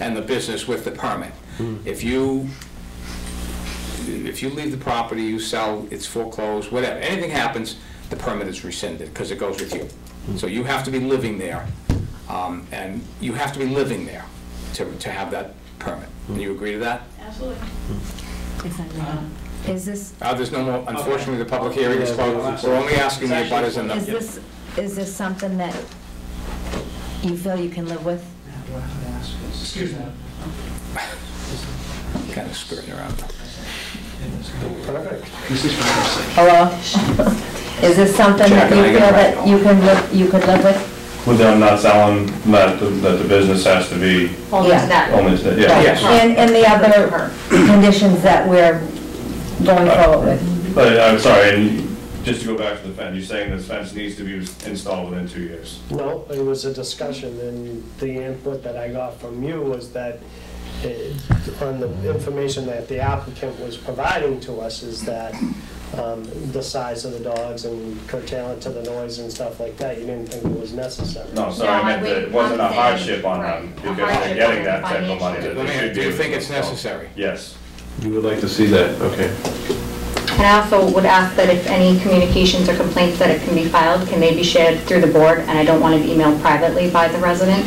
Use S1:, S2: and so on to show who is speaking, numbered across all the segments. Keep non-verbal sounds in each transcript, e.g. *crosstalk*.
S1: and the business with the permit. If you, if you leave the property, you sell, it's foreclosed, whatever, anything happens, the permit is rescinded, because it goes with you. So you have to be living there, um, and you have to be living there to, to have that permit. Do you agree to that?
S2: Absolutely.
S3: Is this,
S1: Uh, there's no more, unfortunately, the public hearing is closed. We're only asking the abutters and
S3: is
S1: the,
S3: this, is this something that you feel you can live with?
S4: Excuse me.
S1: kind of skirting around.
S3: Hello? *laughs* Is this something that
S1: Jack,
S3: you
S1: I
S3: feel
S1: got it
S3: that you can live, you could live with?
S5: With them not selling, not, that the business has to be
S2: Only
S3: Yeah.
S2: that.
S5: only, yeah.
S1: Yes.
S3: And, and the other conditions that we're going
S1: Uh,
S3: forward with?
S5: But I'm sorry, and just to go back to the fence, you're saying this fence needs to be installed within two years?
S4: No, it was a discussion, and the input that I got from you was that, uh, on the information that the applicant was providing to us, is that um, the size of the dogs and curtailing to the noise and stuff like that, you didn't think it was necessary.
S5: No, sorry, I
S2: No,
S5: meant that
S2: wait,
S5: it wasn't a
S2: I'm saying-
S5: hardship on them,
S2: right, a
S5: because
S2: hardship
S5: they're
S2: on
S5: getting that
S2: them
S5: type of money that
S1: Let
S5: they
S1: me,
S5: should
S1: do
S5: be.
S1: you
S5: able to
S1: think it's
S5: install.
S1: necessary?
S5: Yes.
S6: You would like to see that, okay.
S7: And I also would ask that if any communications or complaints that it can be filed, can they be shared through the board? And I don't want it emailed privately by the resident.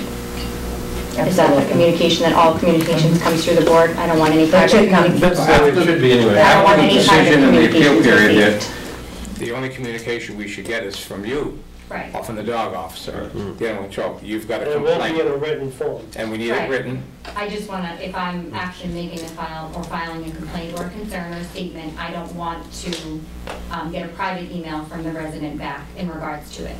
S7: Is that the communication, that all communications comes through the board? I don't want any
S3: That
S7: private
S3: should come-
S7: communications.
S6: it should be anyway.
S7: I don't want
S6: After the
S7: any
S6: decision
S7: private
S6: and the appeal
S7: communications
S6: period, yeah.
S7: received.
S1: The only communication we should get is from you,
S7: Right.
S1: or from the dog officer,
S6: Hmm.
S1: the animal control. You've got a
S4: And It will be in
S1: complaint,
S4: a written form.
S1: and we need it
S7: Right.
S1: written.
S7: I just want to, if I'm actually making a file or filing a complaint or a concern or statement, I don't want to um, get a private email from the resident back in regards to it.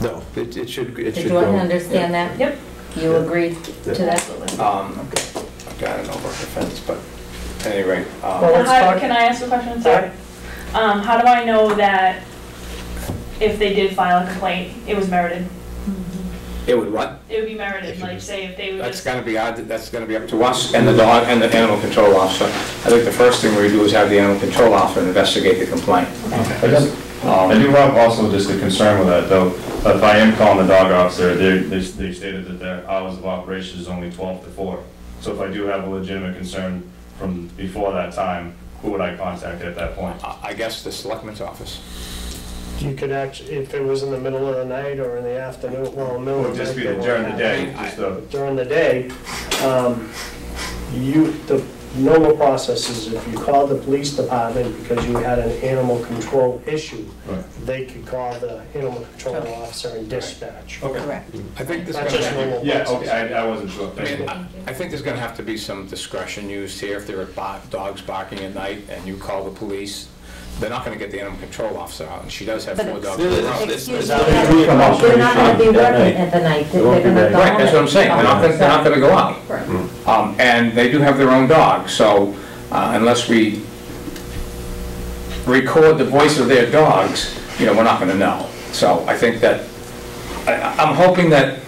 S6: No, it, it should, it
S3: Did
S6: should
S3: you
S6: go.
S3: understand that? Yep. You agreed to that?
S1: Um, I've got an over defense, but at any rate, um,
S4: Well, let's
S2: How-
S4: talk-
S2: Can I ask a question? Sorry. Um, how do I know that if they did file a complaint, it was merited?
S1: it would what?
S2: It would be
S1: If
S2: merited,
S1: you-
S2: like say if they would
S1: That's
S2: just.
S1: gonna be, odd- that's gonna be up to us and the dog and the animal control officer. I think the first thing we do is have the animal control officer investigate the complaint.
S5: I just-
S1: Um,
S5: I do have also just a concern with that, though. If I am calling the dog officer, they, they they stated that their hours of operation is only 12 to 4. So if I do have a legitimate concern from before that time, who would I contact at that point?
S1: I I guess the selectman's office.
S4: You could actually, if it was in the middle of the night or in the afternoon, well, middle
S5: Would
S4: of the night.
S5: just be
S4: they won't
S5: during the
S4: have it.
S5: day, just a,
S4: during the day, um, you, the normal process is if you call the police department because you had an animal control issue,
S5: Right.
S4: they could call the animal control officer and dispatch.
S3: Correct.
S1: I think there's
S4: That's
S1: gonna
S4: just
S1: have,
S4: normal.
S5: yeah, okay, I, I wasn't sure.
S1: I
S5: Thank you.
S1: mean, I I think there's gonna have to be some discretion used here. If there are bo- dogs barking at night and you call the police, they're not gonna get the animal control officer out, and she does have four dogs in a row.
S3: Excuse me,
S4: Is
S6: that-
S3: they're not gonna be working at the night, they're
S6: It won't be
S3: gonna
S6: night.
S3: go home.
S1: Right, that's what I'm saying, they're not, gonna- they're not gonna go out. Um, and they do have their own dog, so uh, unless we record the voice of their dogs, you know, we're not gonna know. So I think that, I, I'm hoping that,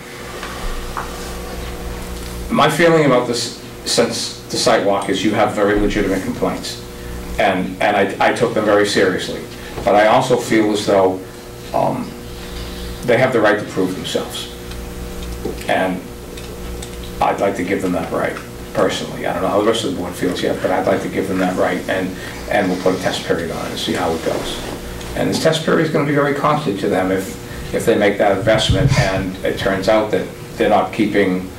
S1: my feeling about this since the sidewalk is you have very legitimate complaints. And, and I, I took them very seriously. But I also feel as though, um, they have the right to prove themselves. And I'd like to give them that right, personally. I don't know how the rest of the board feels yet, but I'd like to give them that right, and, and we'll put a test period on it and see how it goes. And this test period is gonna be very costly to them if, if they make that investment, and it turns out that they're not keeping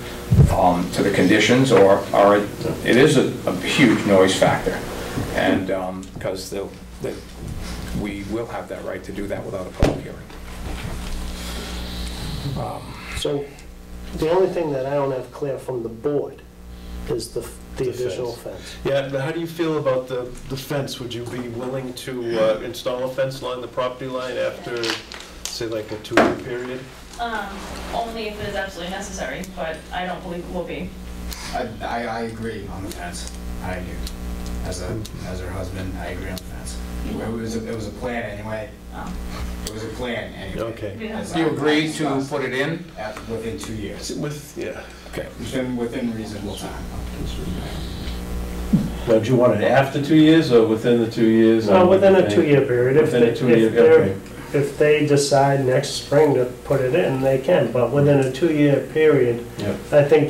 S1: um, to the conditions, or, or it it is a, a huge noise factor. And, because they'll, they- we will have that right to do that without a public hearing. Um,
S4: So the only thing that I don't have clear from the board is the, the additional fence.
S8: Yeah, but how do you feel about the, the fence? Would you be willing to uh, install a fence along the property line after, say, like a two-year period?
S2: Um, only if it is absolutely necessary, but I don't believe it will be.
S9: I, I, I agree on the fence. I do. As a, as her husband, I agree on the fence. It was, a- it was a plan anyway.
S2: Um,
S9: It was a plan anyway.
S8: Okay.
S2: Yeah.
S9: As
S1: Do you
S9: I-
S1: agree to
S9: I discussed
S1: put it in?
S9: At, within two years,
S8: With, yeah.
S1: Okay.
S9: within, within reasonable time.
S6: Now, do you want it after two years or within the two years?
S4: Well, within a two-year period, if
S6: Within
S4: they,
S6: a two-year,
S4: if they're,
S6: okay.
S4: if they decide next spring to put it in, they can, but within a two-year period,
S6: Yep.
S4: I think